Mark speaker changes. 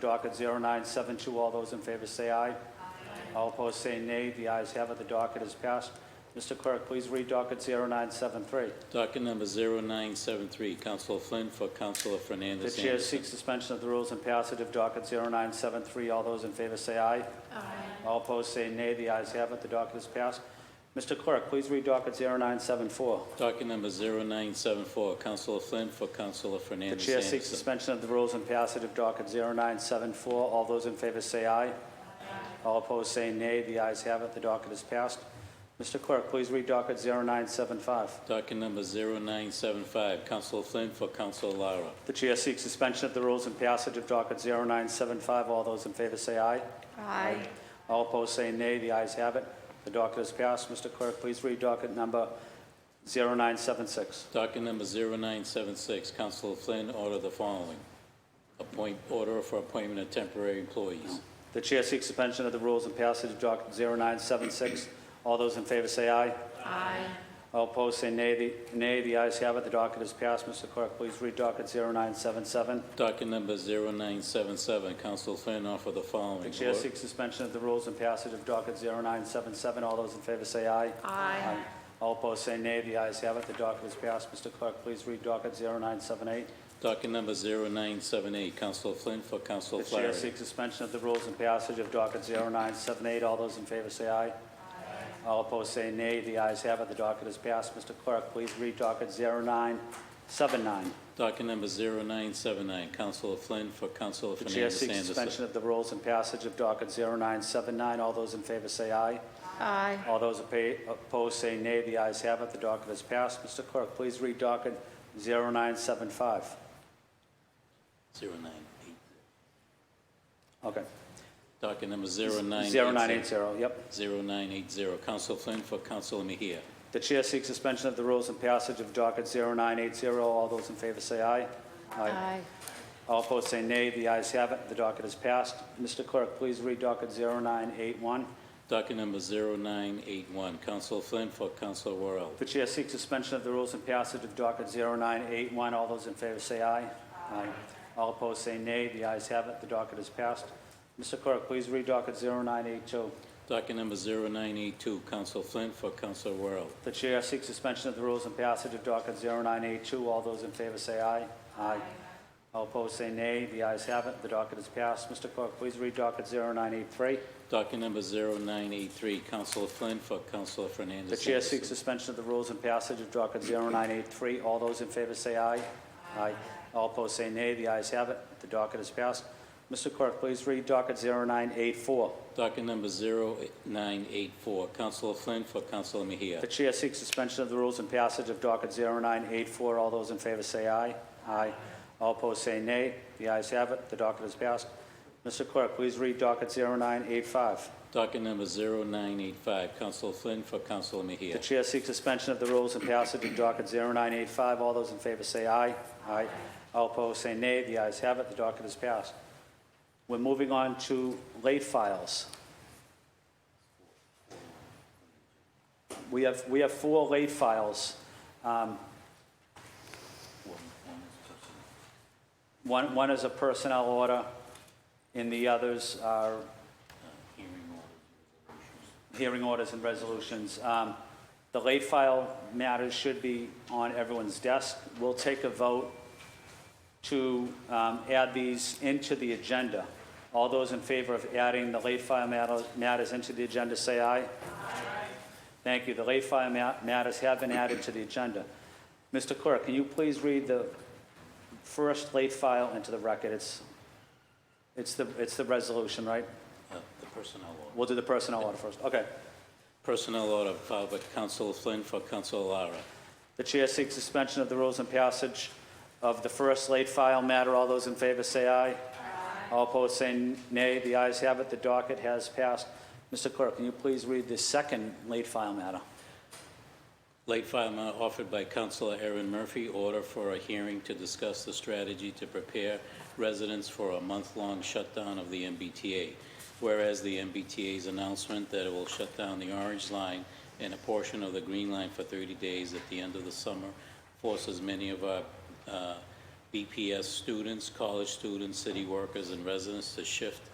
Speaker 1: Docket 0972, all those in favor say aye. Aye. All opposed say nay. The ayes have it, the docket is passed. Mr. Clerk, please read docket 0973.
Speaker 2: Docket number 0973, Counselor Flynn for Counselor
Speaker 1: The
Speaker 2: Fernandez
Speaker 1: chair
Speaker 2: Anderson.
Speaker 1: seeks suspension of the rules and passage of docket 0973. All those in favor say aye. Aye. All opposed say nay. The ayes have it, the docket is passed. Mr. Clerk, please read docket 0974.
Speaker 2: Docket number 0974, Counselor Flynn for Counselor
Speaker 1: The
Speaker 2: Fernandez
Speaker 1: chair seeks
Speaker 2: Anderson.
Speaker 1: suspension of the rules and passage of docket 0974. All those in favor say aye. All opposed say nay. The ayes have it, the docket is passed. Mr. Clerk, please read docket 0975.
Speaker 2: Docket number 0975, Counselor Flynn for Counselor Lara.
Speaker 1: The chair seeks suspension of the rules and passage of docket 0975. All those in favor say aye.
Speaker 3: Aye.
Speaker 1: All opposed say nay. The ayes have it. The docket is passed. Mr. Clerk, please read docket number 0976.
Speaker 2: Docket number 0976, Counselor Flynn order the following. Appoint, order for appointment of temporary employees.
Speaker 1: The chair seeks suspension of the rules and passage of docket 0976. All those in favor say aye.
Speaker 3: Aye.
Speaker 1: All opposed say nay. The- Nay. The ayes have it. The docket is passed. Mr. Clerk, please read docket 0977.
Speaker 2: Docket number 0977, Counselor Flynn offer the following.
Speaker 1: The chair
Speaker 2: Or-
Speaker 1: seeks suspension of the rules and passage of docket 0977. All those in favor say aye.
Speaker 3: Aye.
Speaker 1: All opposed say nay. The ayes have it. The docket is passed. Mr. Clerk, please read docket 0978.
Speaker 2: Docket number 0978, Counselor Flynn for Counselor
Speaker 1: The chair
Speaker 2: Flaherty.
Speaker 1: seeks suspension of the rules and passage of docket 0978. All those in favor say aye. All opposed say nay. The ayes have it. The docket is passed. Mr. Clerk, please read docket 0979.
Speaker 2: Docket number 0979, Counselor Flynn for Counselor
Speaker 1: The chair
Speaker 2: Fernandez
Speaker 1: seeks suspension
Speaker 2: Anderson.
Speaker 1: of the rules and passage of docket 0979. All those in favor say aye.
Speaker 3: Aye.
Speaker 1: All those appa- opposed say nay. The ayes have it. The docket is passed. Mr. Clerk, please read docket 0975.
Speaker 2: 098.
Speaker 1: Okay.
Speaker 2: Docket number 0980.
Speaker 1: 0980, yep.
Speaker 2: 0980, Counselor Flynn for Counselor Mejia.
Speaker 1: The chair seeks suspension of the rules and passage of docket 0980. All those in favor say aye.
Speaker 3: Aye.
Speaker 1: All opposed say nay. The ayes have it. The docket is passed. Mr. Clerk, please read docket 0981.
Speaker 2: Docket number 0981, Counselor Flynn for Counselor Worrell.
Speaker 1: The chair seeks suspension of the rules and passage of docket 0981. All those in favor say aye. Aye. All opposed say nay. The ayes have it. The docket is passed. Mr. Clerk, please read docket 0982.
Speaker 2: Docket number 0982, Counselor Flynn for Counselor Worrell.
Speaker 1: The chair seeks suspension of the rules and passage of docket 0982. All those in favor say aye. Aye. All opposed say nay. The ayes have it. The docket is passed. Mr. Clerk, please read docket 0983.
Speaker 2: Docket number 0983, Counselor Flynn for Counselor Fernandez.
Speaker 1: The chair
Speaker 2: Anderson.
Speaker 1: seeks suspension of the rules and passage of docket 0983. All those in favor say aye. Aye. All opposed say nay. The ayes have it. The docket is passed. Mr. Clerk, please read docket 0984.
Speaker 2: Docket number 0984, Counselor Flynn for Counselor Mejia.
Speaker 1: The chair seeks suspension of the rules and passage of docket 0984. All those in favor say aye. Aye. All opposed say nay. The ayes have it. The docket is passed. Mr. Clerk, please read docket 0985.
Speaker 2: Docket number 0985, Counselor Flynn for Counselor
Speaker 1: The
Speaker 2: Mejia.
Speaker 1: chair seeks suspension of the rules and passage of docket 0985. All those in favor say aye. Aye. All opposed say nay. The ayes have it. The docket is passed. We're moving on to late files. We have, we have four late files. Um, One, one is a personnel order, and the others are hearing orders and resolutions. Um, The late file matters should be on everyone's desk. We'll take a vote to um, add these into the agenda. All those in favor of adding the late file matter- matters into the agenda, say aye. Thank you. The late file ma- matters have been added to the agenda. Mr. Clerk, can you please read the first late file into the record? It's, it's the, it's the resolution, right?
Speaker 2: Uh, The personnel order.
Speaker 1: We'll do the personnel order first. Okay.
Speaker 2: Personnel order filed by Counselor Flynn for Counselor Lara.
Speaker 1: The chair seeks suspension of the rules and passage of the first late file matter. All those in favor say aye. All opposed say nay. The ayes have it. The docket has passed. Mr. Clerk, can you please read the second late file matter?
Speaker 2: Late file matter offered by Counselor Aaron Murphy, order for a hearing to discuss the strategy to prepare residents for a month-long shutdown of the MBTA. Whereas the MBTA's announcement that it will shut down the Orange Line and a portion of the Green Line for 30 days at the end of the summer forces many of our uh, BPS students, college students, city workers, and residents to shift